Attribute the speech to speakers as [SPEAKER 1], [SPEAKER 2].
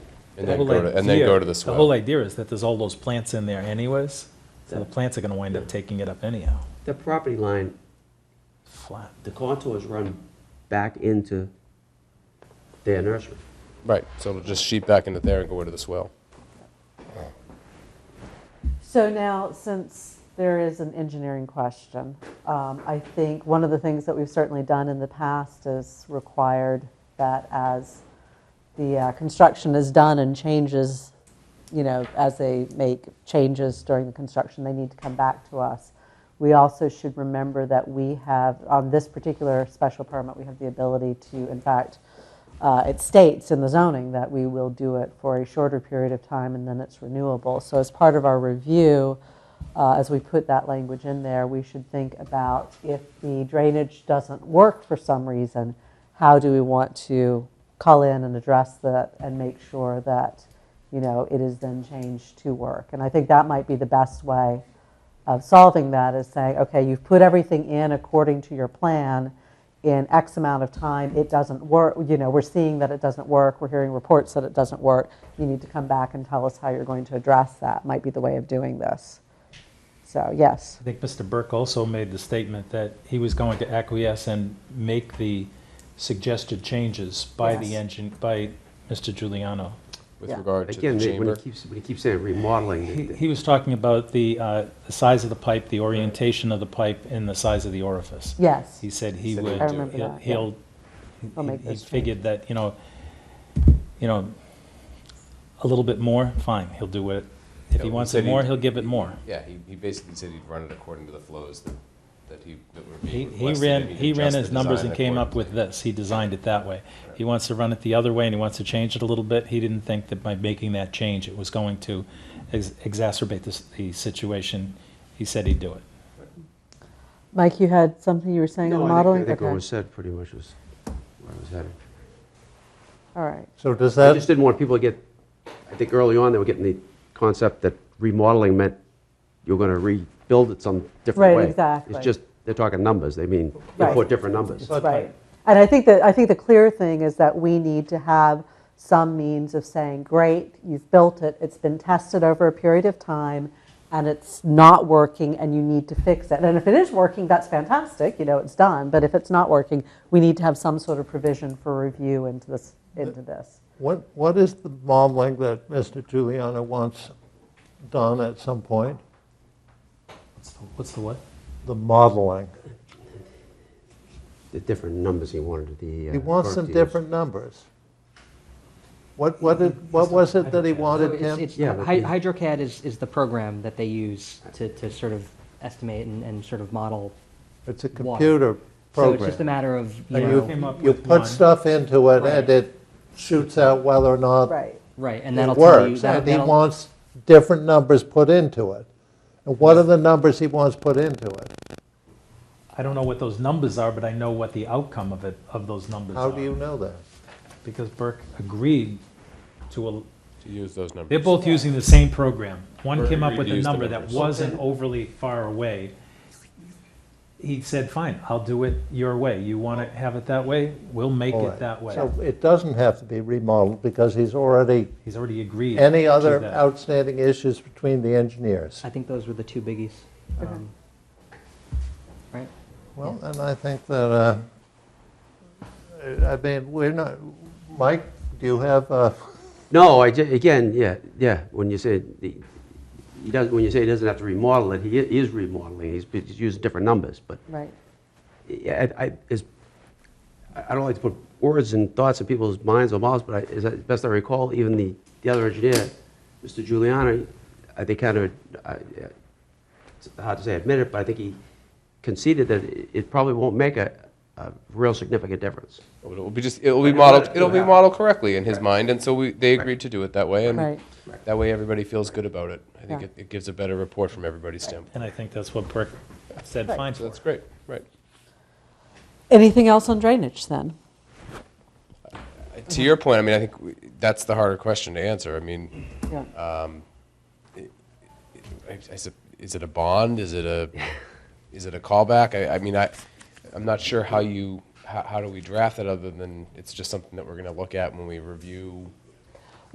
[SPEAKER 1] And
[SPEAKER 2] The
[SPEAKER 1] then
[SPEAKER 2] whole
[SPEAKER 1] go to, and then go
[SPEAKER 2] idea-
[SPEAKER 1] to the
[SPEAKER 2] The whole
[SPEAKER 1] swell.
[SPEAKER 2] idea is that there's all those plants in there anyways, so the plants are gonna wind up taking it up anyhow,
[SPEAKER 3] The property line,
[SPEAKER 2] flat.
[SPEAKER 3] the contours run back into their nursery.
[SPEAKER 1] Right, so it'll just sheep back into there and go into the swell.
[SPEAKER 4] So now, since there is an engineering question, um, I think one of the things that we've certainly done in the past is required that as the uh, construction is done and changes, you know, as they make changes during the construction, they need to come back to us. We also should remember that we have, on this particular special permit, we have the ability to, in fact, uh, it states in the zoning that we will do it for a shorter period of time and then it's renewable. So as part of our review, uh, as we put that language in there, we should think about if the drainage doesn't work for some reason, how do we want to call in and address that and make sure that, you know, it is then changed to work? And I think that might be the best way of solving that is saying, okay, you've put everything in according to your plan in X amount of time, it doesn't work, you know, we're seeing that it doesn't work, we're hearing reports that it doesn't work, you need to come back and tell us how you're going to address that, might be the way of doing this. So, yes,
[SPEAKER 2] I think Mr. Burke also made the statement that he was going to acquiesce and make the suggested changes by the
[SPEAKER 4] Yes.
[SPEAKER 2] engine, by Mr. Giuliano.
[SPEAKER 1] With
[SPEAKER 4] Yeah.
[SPEAKER 1] regard to
[SPEAKER 3] Again,
[SPEAKER 1] the
[SPEAKER 3] they- when he
[SPEAKER 1] chamber,
[SPEAKER 3] keeps, when he keeps saying remodeling,
[SPEAKER 2] He,
[SPEAKER 3] the- the-
[SPEAKER 2] he was talking about the, uh, the size of the pipe, the orientation of the pipe, and the size of the orifice.
[SPEAKER 4] yes,
[SPEAKER 2] He said he
[SPEAKER 1] Said he
[SPEAKER 2] would,
[SPEAKER 1] would I
[SPEAKER 4] remember
[SPEAKER 2] he'll-
[SPEAKER 4] that, yeah.
[SPEAKER 2] he'll,
[SPEAKER 4] I'll make
[SPEAKER 2] he- he
[SPEAKER 4] those
[SPEAKER 2] figured that, you know, you know, a little bit more, fine, he'll do it. If
[SPEAKER 1] Yeah,
[SPEAKER 2] he
[SPEAKER 1] he
[SPEAKER 2] wants
[SPEAKER 1] said
[SPEAKER 2] it
[SPEAKER 1] he-
[SPEAKER 2] more, he'll give it more.
[SPEAKER 1] yeah, he, he basically said he'd run it according to the flows that, that he, that were
[SPEAKER 2] He,
[SPEAKER 1] being
[SPEAKER 2] he
[SPEAKER 1] requested.
[SPEAKER 2] ran,
[SPEAKER 1] and he'd
[SPEAKER 2] he ran
[SPEAKER 1] adjust the
[SPEAKER 2] his numbers
[SPEAKER 1] design
[SPEAKER 2] and came up
[SPEAKER 1] accordingly.
[SPEAKER 2] with this, he designed it that way. He wants to run it the other way and he wants to change it a little bit, he didn't think that by making that change, it was going to ex- exacerbate this, the situation. He said he'd do it.
[SPEAKER 4] Mike, you had something you were saying
[SPEAKER 3] No,
[SPEAKER 4] on
[SPEAKER 3] I think-
[SPEAKER 4] modeling?
[SPEAKER 3] I think what was
[SPEAKER 4] Okay,
[SPEAKER 3] said pretty much was where I was headed.
[SPEAKER 4] all right,
[SPEAKER 5] So does
[SPEAKER 3] I just
[SPEAKER 5] that,
[SPEAKER 3] didn't want people to get, I think early on, they were getting the concept that remodeling meant you're going to rebuild it some different
[SPEAKER 4] Right,
[SPEAKER 3] way.
[SPEAKER 4] exactly.
[SPEAKER 3] It's just, they're talking numbers, they mean, they
[SPEAKER 4] Right.
[SPEAKER 3] put different numbers.
[SPEAKER 5] But-
[SPEAKER 4] right. And I think that, I think the clear thing is that we need to have some means of saying, great, you've built it, it's been tested over a period of time, and it's not working, and you need to fix it. And if it is working, that's fantastic, you know, it's done, but if it's not working, we need to have some sort of provision for review into this, into this.
[SPEAKER 5] what, what is the modeling that Mr. Giuliano wants done at some point?
[SPEAKER 2] What's the what?
[SPEAKER 5] The modeling.
[SPEAKER 3] The different numbers he wanted, the. uh,
[SPEAKER 5] He wants some
[SPEAKER 3] product to use.
[SPEAKER 5] different numbers. What, what did, what was it that he wanted
[SPEAKER 6] It's-
[SPEAKER 5] him?
[SPEAKER 6] it's-
[SPEAKER 3] Yeah, but
[SPEAKER 6] Hy-
[SPEAKER 3] the-
[SPEAKER 6] HydroCAD is, is the program that they use to, to sort of estimate and, and sort of model.
[SPEAKER 5] It's a
[SPEAKER 6] water.
[SPEAKER 5] computer
[SPEAKER 6] So it's just a
[SPEAKER 5] program.
[SPEAKER 6] matter of, you
[SPEAKER 5] And
[SPEAKER 6] know,
[SPEAKER 2] Came up
[SPEAKER 5] you, you
[SPEAKER 2] with
[SPEAKER 5] put
[SPEAKER 2] one.
[SPEAKER 5] stuff into it
[SPEAKER 6] Right.
[SPEAKER 5] and it shoots out whether or not
[SPEAKER 4] Right.
[SPEAKER 6] right, and that'll
[SPEAKER 5] it
[SPEAKER 6] tell you.
[SPEAKER 5] works.
[SPEAKER 6] that'll-
[SPEAKER 5] And he
[SPEAKER 6] that'll-
[SPEAKER 5] wants different numbers put into it. And what are the numbers he wants put into it?
[SPEAKER 2] I don't know what those numbers are, but I know what the outcome of it, of those numbers
[SPEAKER 5] How
[SPEAKER 2] are.
[SPEAKER 5] do you know that?
[SPEAKER 2] Because Burke agreed to, a.
[SPEAKER 1] To use those numbers.
[SPEAKER 2] they're both using the same program. One
[SPEAKER 1] Burke
[SPEAKER 2] came up
[SPEAKER 1] agreed
[SPEAKER 2] with
[SPEAKER 1] to
[SPEAKER 2] a
[SPEAKER 1] use the
[SPEAKER 2] number that
[SPEAKER 1] numbers.
[SPEAKER 2] wasn't overly far away. He said, fine, I'll do it your way. You want to have it that way? We'll make
[SPEAKER 5] All
[SPEAKER 2] it
[SPEAKER 5] right.
[SPEAKER 2] that way.
[SPEAKER 5] So it doesn't have to be remodeled because he's already,
[SPEAKER 2] He's already agreed.
[SPEAKER 5] any
[SPEAKER 2] to
[SPEAKER 5] other
[SPEAKER 2] that.
[SPEAKER 5] outstanding issues between the engineers?
[SPEAKER 6] I think those were the two biggies. um, Right?
[SPEAKER 5] Well, and I think that, uh, I mean, we're not, Mike, do you have, uh,
[SPEAKER 3] No, I, ju- again, yeah, yeah, when you say, the- he doesn't, when you say he doesn't have to remodel it, he i- is remodeling, he's he's using different numbers, but
[SPEAKER 4] Right.
[SPEAKER 3] yeah, I, I- is, I I don't like to put words and thoughts in people's minds or mouths, but I, as I- best I recall, even the, the other engineer, Mr. Giuliano, I think kind of, I- yeah, it's hard to say admit it, but I think he conceded that it- it probably won't make a, a real significant difference.
[SPEAKER 1] It'll be just, it'll
[SPEAKER 3] Right,
[SPEAKER 1] be
[SPEAKER 3] and let
[SPEAKER 1] modeled,
[SPEAKER 3] it do
[SPEAKER 1] it'll be
[SPEAKER 3] that.
[SPEAKER 1] modeled correctly in his mind, and so we, they agreed to do it that way, and
[SPEAKER 4] Right.
[SPEAKER 1] that way everybody feels good about it. I think
[SPEAKER 4] Yeah.
[SPEAKER 1] it, it gives a better report from everybody's standpoint.
[SPEAKER 2] And I think that's what Burke said,
[SPEAKER 4] Right.
[SPEAKER 2] fine
[SPEAKER 1] So
[SPEAKER 2] for.
[SPEAKER 1] that's great, right.
[SPEAKER 4] Anything else on drainage then?
[SPEAKER 1] To your point, I mean, I think we- that's the harder question to answer. I mean,
[SPEAKER 4] Yeah.
[SPEAKER 1] I- I sup- is it a bond? Is it a, is it a callback? I, I mean, I, I'm not sure how you, how, how do we draft it other than it's just something that we're gonna look at when we review